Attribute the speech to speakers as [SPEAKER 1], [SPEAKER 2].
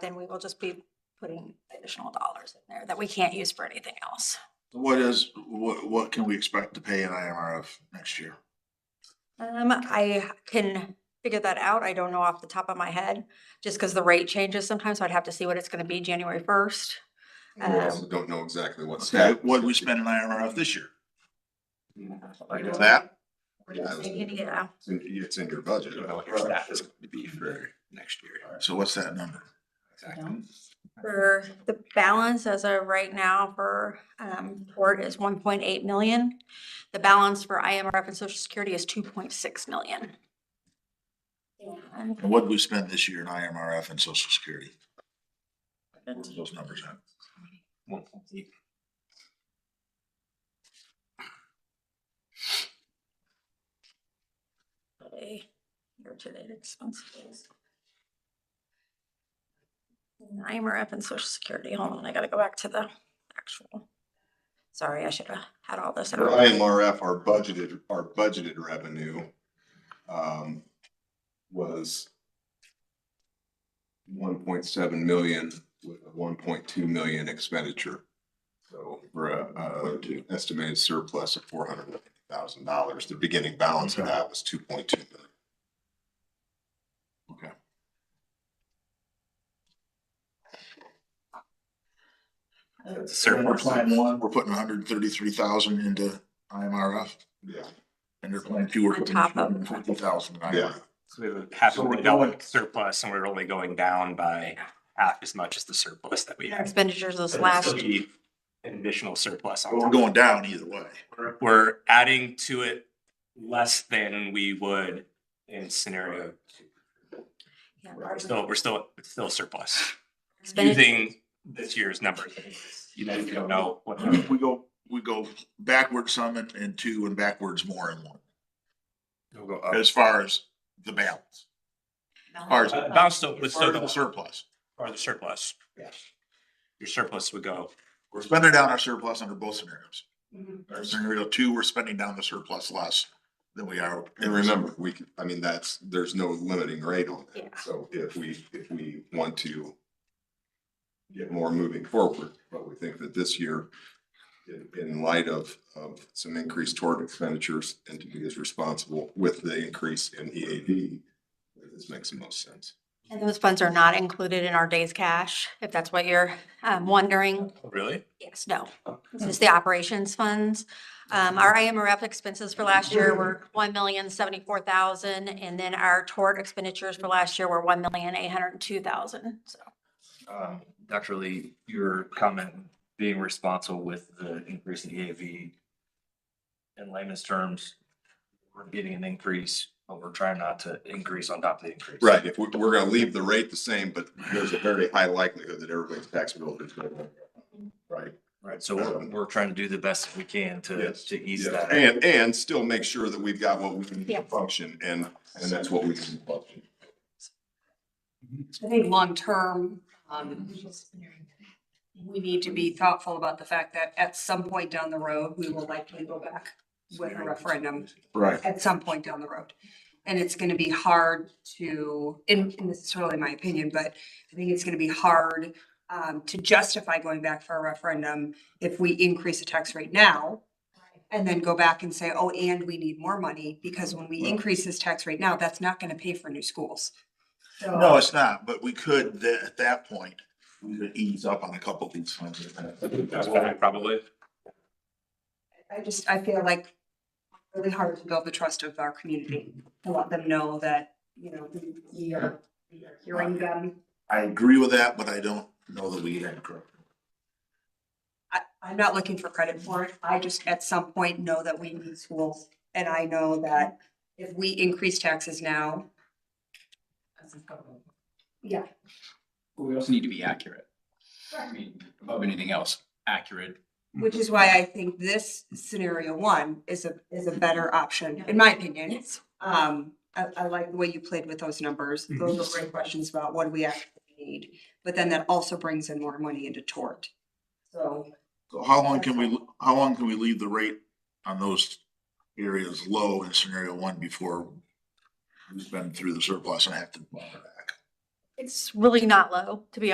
[SPEAKER 1] then we will just be putting additional dollars in there that we can't use for anything else.
[SPEAKER 2] What is, what, what can we expect to pay in IMRF next year?
[SPEAKER 1] Um, I can figure that out. I don't know off the top of my head, just because the rate changes sometimes, so I'd have to see what it's gonna be January first.
[SPEAKER 3] We also
[SPEAKER 1] Um,
[SPEAKER 3] don't know exactly what.
[SPEAKER 2] Okay,
[SPEAKER 3] staff-
[SPEAKER 2] what did we spend in IMRF this year?
[SPEAKER 3] I know that.
[SPEAKER 1] we're just thinking, yeah.
[SPEAKER 3] It's in, it's in your budget.
[SPEAKER 4] don't know what your staff is going to be for next year.
[SPEAKER 2] So what's that number?
[SPEAKER 4] Exactly.
[SPEAKER 1] For the balance as of right now for, um, port is one point eight million. The balance for IMRF and social security is two point six million. And
[SPEAKER 2] And what did we spend this year in IMRF and social security? What were those numbers at?
[SPEAKER 4] One point eight.
[SPEAKER 1] a Year-to-date expenses. IMRF and social security, hold on, I gotta go back to the actual. Sorry, I should have had all this. in
[SPEAKER 3] For
[SPEAKER 1] my-
[SPEAKER 3] IMRF, our budgeted, our budgeted revenue, um, was one point seven million with a one point two million expenditure. So for a, uh, estimated surplus of four hundred and fifty thousand dollars, the beginning balance of that was two point two million.
[SPEAKER 2] Okay.
[SPEAKER 4] It's a
[SPEAKER 2] And we're
[SPEAKER 4] surplus.
[SPEAKER 2] planning one, we're putting hundred and thirty-three thousand into IMRF
[SPEAKER 3] Yeah,
[SPEAKER 2] and they're planning two, we're
[SPEAKER 1] On
[SPEAKER 2] putting two
[SPEAKER 1] top of-
[SPEAKER 2] hundred and fifty thousand in
[SPEAKER 3] yeah,
[SPEAKER 2] IMRF.
[SPEAKER 4] So we have a half
[SPEAKER 2] So
[SPEAKER 4] a
[SPEAKER 2] we're
[SPEAKER 4] million dollar
[SPEAKER 2] going-
[SPEAKER 4] surplus and we're only going down by half as much as the surplus that we
[SPEAKER 1] Our
[SPEAKER 4] have.
[SPEAKER 1] Expenditures this
[SPEAKER 4] So
[SPEAKER 1] last,
[SPEAKER 4] there'll be An additional surplus
[SPEAKER 2] But we're
[SPEAKER 4] on top.
[SPEAKER 2] going down either way.
[SPEAKER 4] We're- We're adding to it less than we would in scenario. two.
[SPEAKER 1] yeah,
[SPEAKER 4] We're still, we're still, it's still surplus,
[SPEAKER 1] expenditures,
[SPEAKER 4] using this year's numbers. You know, you don't know what.
[SPEAKER 2] We go, we go backwards some and, and two and backwards more and one,
[SPEAKER 4] It'll go up.
[SPEAKER 2] as far as the balance. Ours,
[SPEAKER 4] Uh, Bounce still, would
[SPEAKER 2] it's
[SPEAKER 4] still
[SPEAKER 2] still
[SPEAKER 4] go
[SPEAKER 2] the
[SPEAKER 4] up.
[SPEAKER 2] surplus.
[SPEAKER 4] Or the surplus.
[SPEAKER 2] Yes.
[SPEAKER 4] Your surplus would go.
[SPEAKER 2] We're spending down our surplus under both scenarios.
[SPEAKER 1] Mhm.
[SPEAKER 2] Our scenario two, we're spending down the surplus less than we are.
[SPEAKER 3] and remember, we, can- I mean, that's, there's no limiting rate on that.
[SPEAKER 1] Yeah.
[SPEAKER 3] So if we, if we want to get more moving forward, but we think that this year, in, in light of, of some increased toward expenditures and to be as responsible with the increase in E EAV, this makes the most sense.
[SPEAKER 1] And those funds are not included in our day's cash, if that's what you're, um, wondering.
[SPEAKER 4] Really?
[SPEAKER 1] Yes, no, this is the operations funds. Um, our IMRF expenses for last year were one million seventy-four thousand, and then our tort expenditures for last year were one million eight hundred and two thousand, so.
[SPEAKER 5] um, Dr. Lee, your comment being responsible with the increase in EAV. In layman's terms, we're getting an increase, but we're trying not to increase on top of the increase.
[SPEAKER 3] Right, if we, we're gonna leave the rate the same, but there's a very high likelihood that everybody's tax bill is going up. Right.
[SPEAKER 5] Right, so we're, we're trying to do the best we can to,
[SPEAKER 3] Yes.
[SPEAKER 5] to ease
[SPEAKER 3] Yeah,
[SPEAKER 5] that.
[SPEAKER 3] And, and still make sure that we've got what we need
[SPEAKER 1] Yeah.
[SPEAKER 3] to function and, and that's what we can function.
[SPEAKER 6] I think long-term, um, we need to be thoughtful about the fact that at some point down the road, we will likely go back with a referendum
[SPEAKER 3] Right.
[SPEAKER 6] at some point down the road. And it's gonna be hard to, and, and this is totally my opinion, but I think it's gonna be hard um, to justify going back for a referendum if we increase the tax rate now and then go back and say, oh, and we need more money, because when we increase this tax rate now, that's not gonna pay for new schools. So-
[SPEAKER 2] No, it's not, but we could, th- at that point, we could ease up on a couple of these things.
[SPEAKER 4] That's probably.
[SPEAKER 6] I just, I feel like really hard to build the trust of our community, to let them know that, you know, we- we are we are hearing them.
[SPEAKER 2] I agree with that, but I don't know that we had correct.
[SPEAKER 6] I, I'm not looking for credit for it. I just at some point know that we need schools. And I know that if we increase taxes now. Yeah,
[SPEAKER 7] But we also need to be accurate. I mean, above anything else, accurate.
[SPEAKER 6] which is why I think this scenario one is a, is a better option, in my opinion. Um, I, I like the way you played with those numbers. Those are great questions about what do we actually need? But then that also brings in more money into tort. So
[SPEAKER 2] So how long can we, how long can we leave the rate on those areas low in scenario one before we've been through the surplus and have to bump it back?
[SPEAKER 1] It's really not low, to be